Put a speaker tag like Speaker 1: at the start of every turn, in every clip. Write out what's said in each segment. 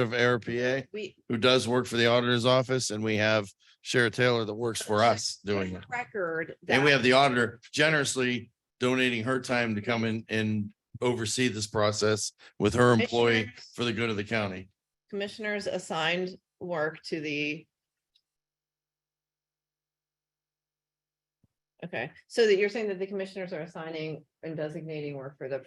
Speaker 1: of ARPA
Speaker 2: We.
Speaker 1: who does work for the auditor's office and we have Shara Taylor that works for us doing it.
Speaker 2: Record.
Speaker 1: And we
Speaker 2: that-
Speaker 1: have the auditor generously donating her time to come in and oversee this process with her employee
Speaker 2: Commissioners-
Speaker 1: for the good of the county.
Speaker 2: Commissioners assigned work to the. Okay, so that you're saying that the commissioners are assigning and designating work for the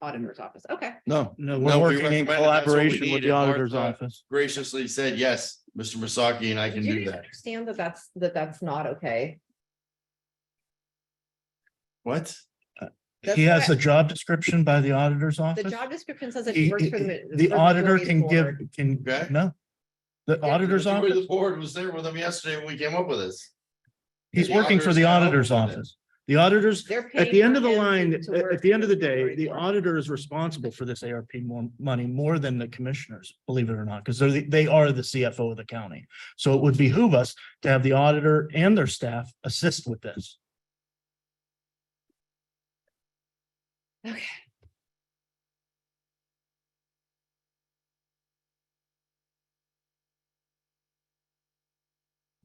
Speaker 2: auditor's office. Okay,
Speaker 1: No, No,
Speaker 3: No, we're
Speaker 1: we
Speaker 3: working in
Speaker 1: recommend it. That's what we
Speaker 3: collaboration
Speaker 1: need,
Speaker 3: with the
Speaker 1: and
Speaker 3: auditor's
Speaker 1: Martha-
Speaker 3: office.
Speaker 1: graciously said, yes, Mr. Masaki, and I
Speaker 2: do
Speaker 1: can do
Speaker 2: you
Speaker 1: that.
Speaker 2: understand that that's, that that's not okay?
Speaker 1: What?
Speaker 2: That's
Speaker 3: He has a
Speaker 2: correct.
Speaker 3: job description by the auditor's
Speaker 2: The
Speaker 3: office.
Speaker 2: job description says that
Speaker 3: He-
Speaker 2: he works for the.
Speaker 3: The
Speaker 2: for
Speaker 3: auditor
Speaker 2: Deloitte
Speaker 3: can give,
Speaker 2: Board.
Speaker 3: can,
Speaker 1: Okay.
Speaker 3: no. The auditor's
Speaker 1: The
Speaker 3: office,
Speaker 1: board was there with him yesterday when we came up with this.
Speaker 3: he's
Speaker 1: the
Speaker 3: working for the
Speaker 1: auditor's
Speaker 3: auditor's
Speaker 1: office.
Speaker 3: office. The auditors,
Speaker 2: They're
Speaker 3: at the
Speaker 2: paying
Speaker 3: end of the
Speaker 2: him to-
Speaker 3: line,
Speaker 2: to
Speaker 3: at,
Speaker 2: work
Speaker 3: at the end
Speaker 2: for
Speaker 3: of the day,
Speaker 2: Deloitte
Speaker 3: the
Speaker 2: Board.
Speaker 3: auditor is responsible for this ARP more money, more than the commissioners, believe it or not, because they're, the- they are the CFO of the county. So it would behoove us to have the auditor and their staff assist with this.
Speaker 2: Okay.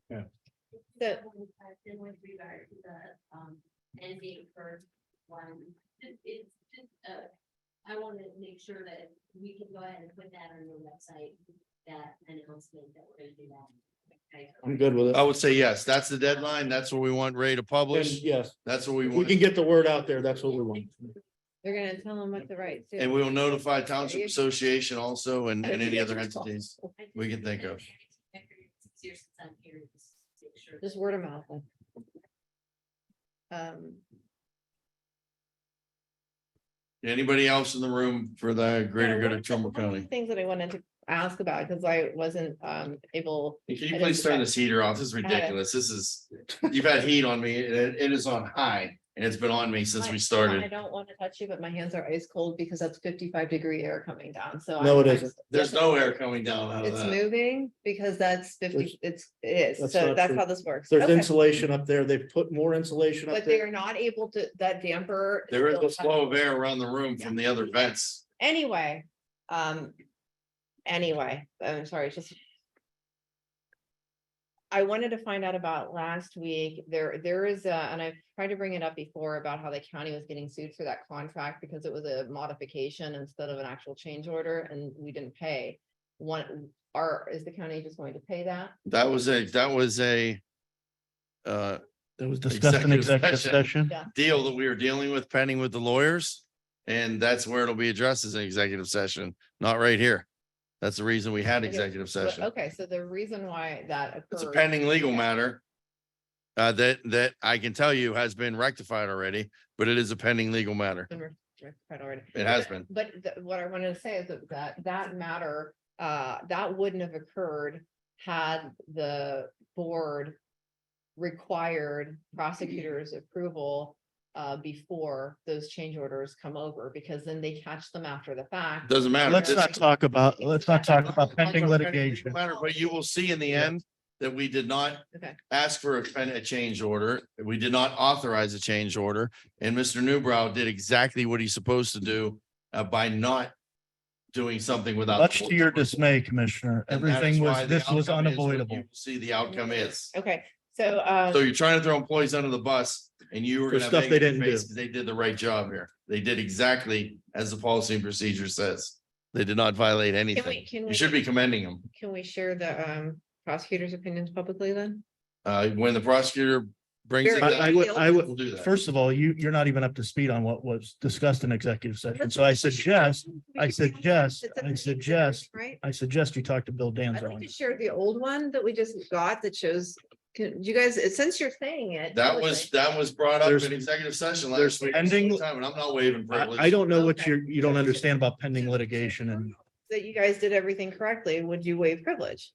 Speaker 1: Yeah.
Speaker 2: The,
Speaker 4: one question with regard to the, um, end date for one, Just- it's just, uh, I want to make sure that we can go ahead and put that on the website, that announcement that we're gonna do that. Okay.
Speaker 3: I'm good with
Speaker 1: I would say yes, that's the deadline. That's what we want Ray to publish.
Speaker 3: yes,
Speaker 1: That's what we want.
Speaker 3: get the word out
Speaker 4: there, that's what we want.
Speaker 2: they're gonna tell them what the rights.
Speaker 1: And we will notify Township Association also and, and any other entities.
Speaker 4: I
Speaker 1: We can think of.
Speaker 4: Six years since I'm here, just make sure.
Speaker 2: Just word of mouth. like. Um,
Speaker 1: Anybody else in the room for the greater
Speaker 2: yeah,
Speaker 1: good
Speaker 2: one
Speaker 1: of Trumbull
Speaker 2: one of the
Speaker 1: County?
Speaker 2: Things that I wanted to ask about, because I wasn't, um, able,
Speaker 1: Can you please turn this heater off? This is ridiculous. This is, you've had heat on me. It, it is on high and it's been on me since we
Speaker 2: I
Speaker 1: started.
Speaker 2: don't want to touch you, but my hands are ice cold because that's fifty-five degree air coming down, so.
Speaker 3: No,
Speaker 2: I'm-
Speaker 3: it
Speaker 2: I'm-
Speaker 3: isn't.
Speaker 1: There's no air coming down out of
Speaker 2: It's
Speaker 1: that.
Speaker 2: moving because that's fifty, it's, it is,
Speaker 3: that's
Speaker 2: so
Speaker 3: not
Speaker 2: that's
Speaker 3: true.
Speaker 2: how this works.
Speaker 3: There's
Speaker 2: Okay.
Speaker 3: insulation up there. They've put more insulation up
Speaker 2: But
Speaker 3: there.
Speaker 2: they're not able to, that damper.
Speaker 1: There is
Speaker 2: still
Speaker 1: a flow of air around the room from the other vents.
Speaker 2: Anyway, um, anyway, I'm sorry, it's just. I wanted to find out about last week, there, there is a, and I've tried to bring it up before about how the county was getting sued for that contract because it was a modification instead of an actual change order and we didn't pay. One, are, is the county just going to pay that?
Speaker 1: That was a, that was a uh,
Speaker 3: That was discussed in
Speaker 1: Executive
Speaker 3: executive
Speaker 1: session.
Speaker 3: session.
Speaker 2: Yeah.
Speaker 1: deal that we were dealing with pending with the lawyers. And that's where it'll be addressed as an executive session, not right here. That's the reason we had
Speaker 2: Okay,
Speaker 1: executive
Speaker 2: But-
Speaker 1: session.
Speaker 2: Okay, so the reason why that
Speaker 1: It's a
Speaker 2: occurred,
Speaker 1: pending legal
Speaker 2: Yeah.
Speaker 1: matter. Uh, that, that I can tell you has been rectified already, but it is a pending legal matter.
Speaker 2: been re- rectified already.
Speaker 1: It has been.
Speaker 2: But th- what I wanted to say is that- that that matter, uh, that wouldn't have occurred had the board required prosecutor's approval uh, before those change orders come over, because then they catch them after the fact.
Speaker 1: Doesn't matter.
Speaker 3: Let's
Speaker 1: This-
Speaker 3: not talk about, let's not talk
Speaker 1: Talk
Speaker 3: about
Speaker 1: legal
Speaker 3: pending litigation.
Speaker 1: Matter, but you will see in the end that we did not
Speaker 2: Okay.
Speaker 1: ask for a, pen- a change order. We did not authorize a change order. And Mr. Newbrow did exactly what he's supposed to do uh, by not doing something without. the
Speaker 3: Much to
Speaker 1: board's
Speaker 3: your
Speaker 1: approval.
Speaker 3: dismay, Commissioner,
Speaker 1: And that is
Speaker 3: everything
Speaker 1: why
Speaker 3: was,
Speaker 1: the
Speaker 3: this was
Speaker 1: outcome is what you
Speaker 3: unavoidable.
Speaker 1: will See, the outcome is.
Speaker 2: Okay, so, uh,
Speaker 1: So you're trying to throw employees under the bus and you were.
Speaker 3: For
Speaker 1: gonna have
Speaker 3: stuff they
Speaker 1: egg in your
Speaker 3: didn't do.
Speaker 1: face 'cause They did the right job here. They did exactly as the policy and procedure says. They did not violate
Speaker 2: can we,
Speaker 1: anything.
Speaker 2: can
Speaker 1: You should be
Speaker 2: we,
Speaker 1: commending them.
Speaker 2: can we share the um, prosecutor's opinions publicly then?
Speaker 1: Uh, when the prosecutor brings it,
Speaker 2: Very-
Speaker 3: I, I
Speaker 1: up,
Speaker 3: would, I would,
Speaker 1: we'll do that.
Speaker 3: first of all, you, you're not even up to speed on what was discussed in executive session. So I suggest, I suggest, I suggest,
Speaker 2: Right?
Speaker 3: I suggest you talk to Bill
Speaker 2: I'd
Speaker 3: Danzo.
Speaker 2: like
Speaker 3: on
Speaker 2: to
Speaker 3: this.
Speaker 2: share the old one that we just got that shows, can, you guys, since you're saying it.
Speaker 1: That was, that was brought up
Speaker 3: There's-
Speaker 1: in executive session last
Speaker 3: there's
Speaker 1: week.
Speaker 3: pending-
Speaker 1: sometime, And I'm not waiving
Speaker 3: I,
Speaker 1: privilege.
Speaker 3: I don't know what
Speaker 2: Okay.
Speaker 3: you're, you don't understand about pending litigation and
Speaker 2: That you guys did everything correctly, would you waive privilege?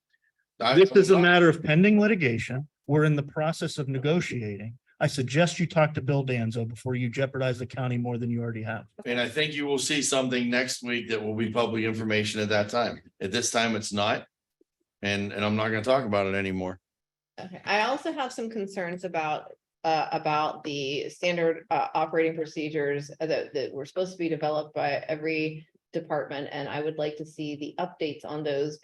Speaker 1: I-
Speaker 3: This is a matter of pending litigation. We're in the process of negotiating. I suggest you talk to Bill Danzo before you jeopardize the county more than you already have.
Speaker 1: And I think you will see something next week that will be public information at that time. At this time, it's not. And, and I'm not gonna talk about it anymore.
Speaker 2: Okay, I also have some concerns about, uh, about the standard, uh, operating procedures that, that were supposed to be developed by every department, and I would like to see the updates on those